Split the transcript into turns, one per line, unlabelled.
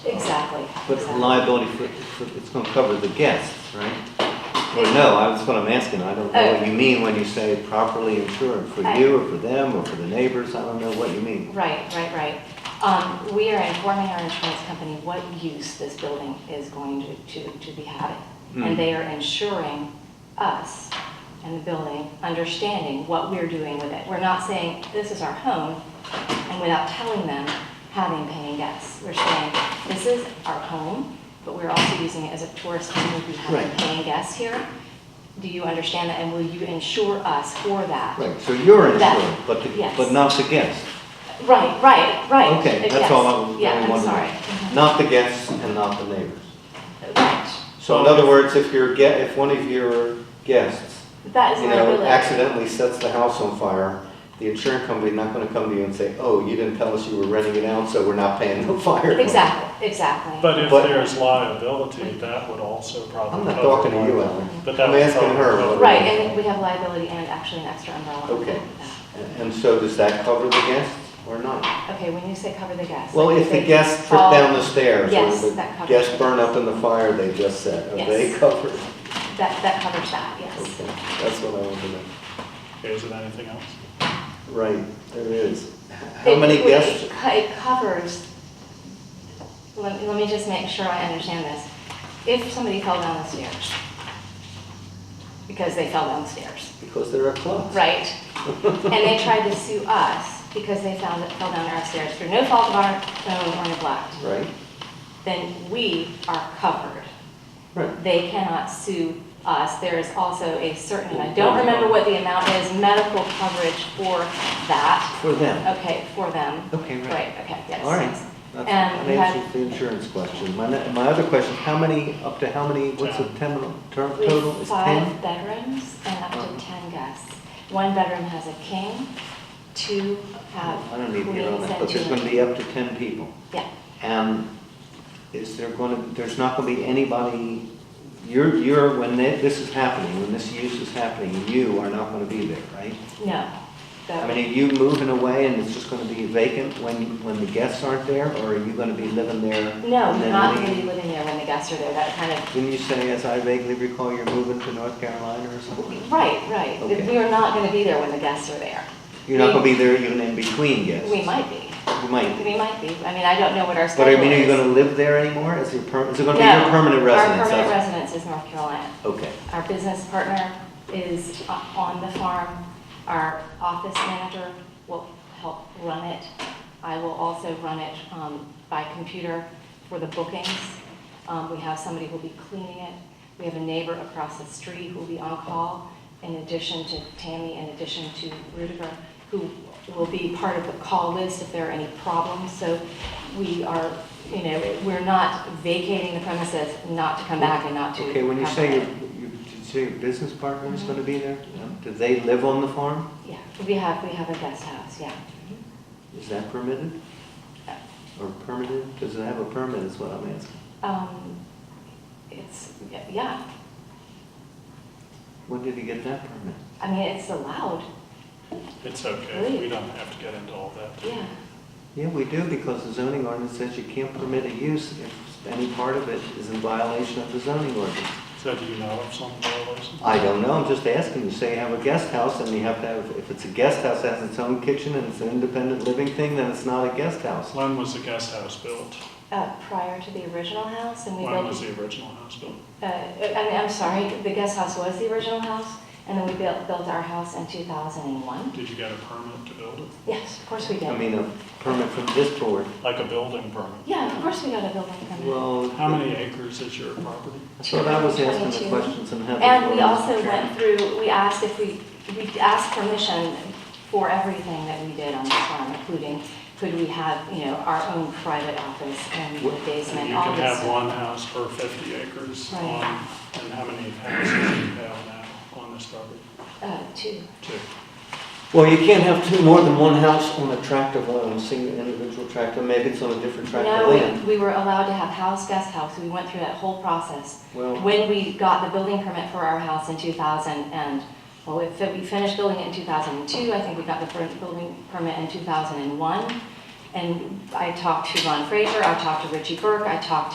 Exactly.
But it's liability for, for- it's gonna cover the guests, right? Or no, I- that's what I'm asking, I don't know what
Oh.
you mean when you say properly insured, for you or for them or for the neighbors, I don't know what you mean.
Right, right, right. Um, we are informing our insurance company what use this building is going to, to, to be having.
Hmm.
And they are insuring us and the building, understanding what we're doing with it. We're not saying, this is our home, and without telling them, having paying guests. We're saying, this is our home, but we're also using it as a tourist home, we have
Right.
paying guests here. Do you understand that, and will you insure us for that?
Right, so you're
That-
insured, but, the-
yes.
but not the guests.
Right, right, right.
Okay,
Yes.
that's all I was,
Yeah,
I
I'm
wanted to
sorry. Mm-hmm.
know. Not the guests and not the neighbors.
Mhm. Right.
So in other words, if your, ge- if one of your guests,
That is
you know,
liability.
accidentally sets the house on fire, the insurance company's not gonna come to you and say, oh, you didn't tell us you were renting it out, so we're not paying the fire.
Exactly, exactly.
But if
But-
there's liability, that would also probably.
I'm not
cover
talking to you,
liability.
Alan.
But that
I'm
would
asking
cover
her.
liability.
Right, and we have liability and actually an extra umbrella. on
Okay.
top of that.
And so does that cover the guests or not?
Okay, when you say cover the guests.
Well,
like
if the
they
guests trip
fall-
down the stairs or
Yes,
the
that covers
guests
it.
burn up in the fire they just said, are they
Yes.
covered?
That, that covers that, yes.
Okay, That's what I want to know.
Okay, is there anything else?
Right, there is. How
It-
many
it-
guests?
it co- It covers, let, let me just make sure I understand this. If somebody fell down the stairs, because they fell down the stairs,
Because there are clubs.
right? And they tried to sue us because they found it fell down our stairs through no fault of our own or neglect.
Right?
then we are covered.
Right.
They cannot sue us. There is also a certain, I don't remember what the amount is, medical coverage for that,
For them.
okay, for them.
Okay, right.
Right, okay, Oh, yes.
All right.
yes.
That's-
And
That
we
answers
have,
the insurance question. My, ne- my other question, how many, up to how many, what's the
Ten.
terminal, term
we
total?
have
It's
five
10?
bedrooms and up
Uh-huh.
to 10 guests. One bedroom has a king, two have
I don't need to
queens
hear all that,
and
but there's going to
two.
be up to 10 people.
Yeah,
And is there going to, there's not going to be anybody, you're, you're, when thi- this is happening, when this use is happening, you are not going to be there, right?
no.
I
That-
mean, are you moving away and it's just going to be vacant when, when the guests aren't there? Or are you going to be living there?
No,
and
we're
then
not
leave?
going to be living there when the guests are there. That kind of
Didn't you say, as I vaguely recall, you're moving to North Carolina or something?
Right, right.
Okay.
We are not going to be there when the guests are there.
You're not going to be there even in between guests?
We might be.
You might be.
We might be. I mean, I don't know what our
But
schedule is.
I mean, are you going to live there anymore? Is your per, is it going to be your
No,
permanent residence?
Our permanent
That's-
residence is North Carolina.
Okay,
Our business partner is o- on the farm. Our office manager will help run it. I will also run it um, by computer for the bookings. Um, We have somebody who'll be cleaning it. We have a neighbor across the street who'll be on call, in addition to Tammy, in addition to Rudiger, who will be part of the call list if there are any problems. So we are, you know, we're not vacating the premises not to come back and not to. Mm-hmm.
okay, when you
come
say
in.
your, your- did you say your business partner is going to be there? Do they live on the farm?
Yeah, we have, we have a guest house, yeah.
Is that permitted? Mm-hmm.
Yeah.
Or permitted? Does it have a permit is what I'm asking.
Um, It's, yeah,
When did you get that permit?
I mean, it's allowed,
It's okay, we don't have to get into all that.
yeah.
Yeah, we do because the zoning ordinance says you can't permit a use if any part of it is in violation of the zoning ordinance.
So do you know of some violations?
I don't know, I'm just asking, you say you have a guest house, and you have to have, if it's a guest house, that has its own kitchen, and it's an independent living thing, then it's not a guest house.
When was the guest house built?
Uh, Prior to the original house, and we
When was
built,
the original house built?
uh, I mean, I'm sorry, the guest house was the original house, and then we built, built our house in 2001.
Did you get a permit to build it?
Yes, of course we
I
did.
mean, a permit from this board,
Like a building permit?
Yeah, of course we got a building permit.
well.
How many acres is your property?
I thought I was asking the
22.
questions and having.
And we also went through, we asked if we, we asked permission for everything that we did on this farm, including could we have, you know, our own private office and the
What-
And
basement,
you
all
can
this.
have one house per 50 acres
Right.
on, and how many houses do you have now on this property?
Uh, two.
Two.
Well, you can't have two, more than one house on a tract of land, on a single individual tract, or maybe it's on a different tract
No,
of land.
we, we were allowed to have house, guest house, we went through that whole process.
Well,
When we got the building permit for our house in two thousand and, well, we fi- we finished building it in two thousand and two, I think we got the fir- building permit in two thousand and one. And I talked to Ron Fraser, I talked to Richie Burke, I talked